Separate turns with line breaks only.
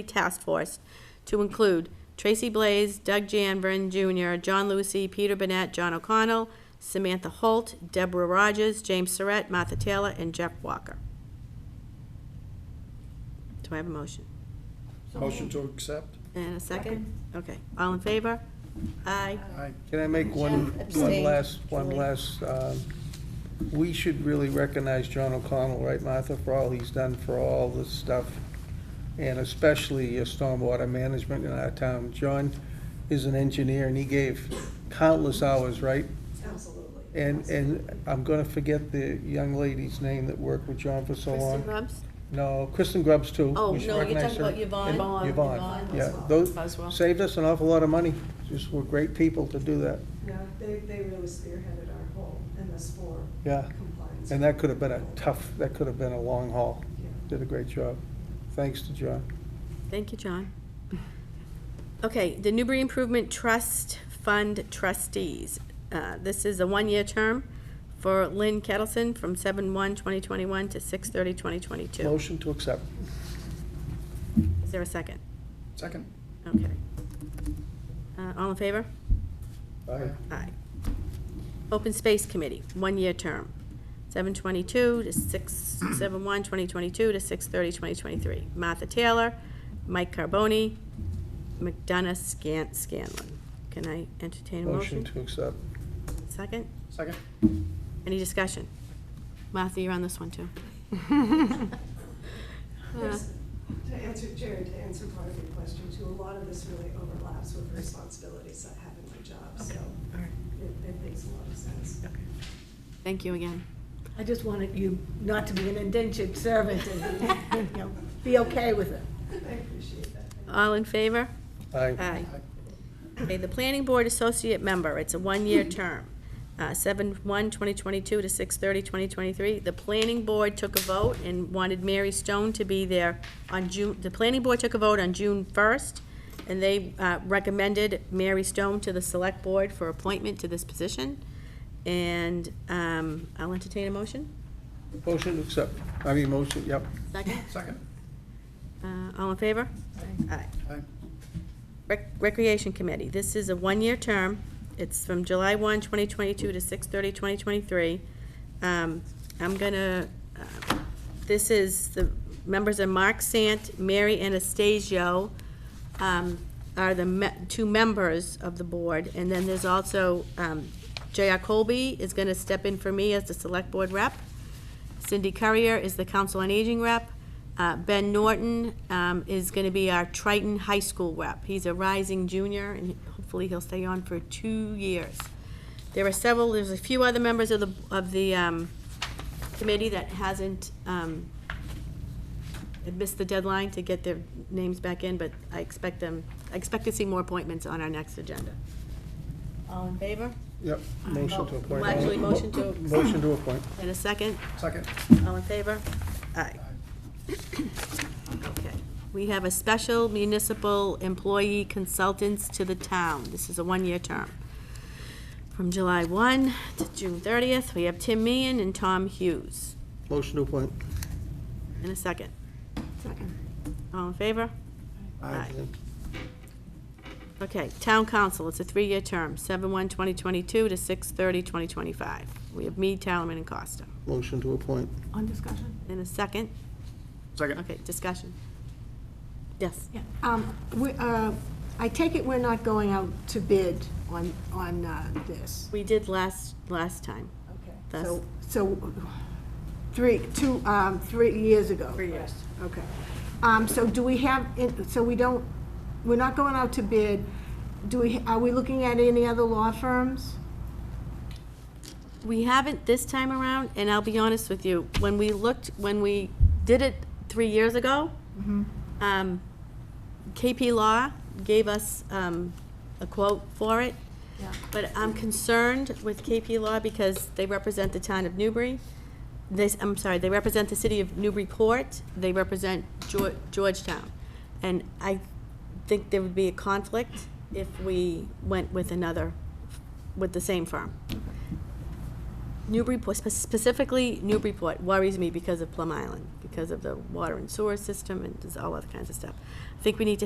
Task Force to include Tracy Blaze, Doug Janvren Jr., John Lucy, Peter Burnett, John O'Connell, Samantha Holt, Deborah Rogers, James Surratt, Martha Taylor, and Jeff Walker. Do I have a motion?
Motion to accept?
And a second? Okay, all in favor? Aye.
Aye.
Can I make one, one
Abstain,
last, one
Julie.
last, um, we should really recognize John O'Connell, right, Martha, for all he's done for all this stuff, and especially uh, stormwater management in our town. John is an engineer, and he gave countless hours, right?
Absolutely.
And, and I'm gonna forget the young lady's name that worked with John for so
Kristen
long.
Grubbs?
No, Kristen Grubbs, too.
Oh,
We should
no, you're
recognize
talking
her.
about Yvonne. Yvonne,
And Yvonne,
Yvonne
yeah,
Boswell.
Boswell.
those, saved us an awful lot of money, just were great people to do that,
Yeah, they, they really spearheaded our whole MS four
yeah.
compliance.
And that could have been a tough, that could have been a long haul.
Yeah.
Did a great job. Thanks to John.
Thank you, John. Okay, the Newbury Improvement Trust Fund trustees. Uh, This is a one-year term for Lynn Kettleson from 7/1/2021 to 6/30/2022.
Motion to accept.
Is there a second?
Second?
Okay. Uh, All in favor?
Aye.
Aye. Open Space Committee, one-year term, 7/22 to 6, 7/1/2022 to 6/30/2023. Martha Taylor, Mike Carboni, McDonough Scan- Scanlon. Can I entertain a
Motion
motion?
to accept.
Second?
Second?
Any discussion? Martha, you're on this one, too.
There's- To answer, Jared, to answer part of your question too, a lot of this really overlaps with the responsibilities I have in my job, so it, it makes a lot of sense.
Thank you again.
I just wanted you not to be an indentured servant and, you know, be okay with it.
I appreciate that.
All in favor?
Aye.
Aye. Okay, the Planning Board Associate Member, it's a one-year term, Uh, seven one 2022 to six thirty 2023. The Planning Board took a vote and wanted Mary Stone to be there on June, the Planning Board took a vote on June 1st, and they uh, recommended Mary Stone to the Select Board for appointment to this position. And um, I'll entertain a motion.
Motion to accept. I mean, motion, yep.
Second?
Second?
Uh, All in favor? Aye.
Aye.
Rec- Recreation Committee, this is a one-year term. It's from July 1, 2022 to 6/30/2023. Um, I'm gonna, uh, this is, the members are Mark Sant, Mary Anastasio um, are the me- two members of the board. And then there's also um, J.R. Colby is gonna step in for me as the Select Board rep. Cindy Currier is the Council on Aging rep. Uh, Ben Norton um, is going to be our Triton High School rep. He's a rising junior, and hopefully he'll stay on for two years. There are several, there's a few other members of the, of the um, committee that hasn't, um, had missed the deadline to get their names back in, but I expect them, I expect to see more appointments on our next agenda. All in favor?
Yep. Motion to appoint.
Well, actually, motion to-
Motion to appoint.
In a second?
Second?
All in favor? Aye. Okay. We have a special municipal employee consultants to the town. This is a one-year term. From July 1 to June 30th, we have Tim Meehan and Tom Hughes.
Motion to appoint.
In a second. Second. All in favor? Okay, Town Council, it's a three-year term, 7/1/2022 to 6/30/2025. We have Mead, Talman, and Costa.
Motion to appoint.
On discussion?
In a second?
Second?
Okay, discussion. Yes?
Yeah. Um, we, uh, I take it we're not going out to bid on, on, uh, this?
We did last, last time.
Okay.
That's-
So, so, three, two, um, three years ago? Three years. Okay. Um, so do we have, it- so we don't, we're not going out to bid, do we, are we looking at any other law firms?
We haven't this time around, and I'll be honest with you, when we looked, when we did it three years ago, um, KP Law gave us um, a quote for it.
Yeah.
But I'm concerned with KP Law because they represent the town of Newbury. They, s- I'm sorry, they represent the city of Newburyport, they represent Geor- Georgetown. And I think there would be a conflict if we went with another, with the same firm. Newburyport, specifically Newburyport worries me because of Plum Island, because of the water and sewer system and there's all other kinds of stuff. I think we need to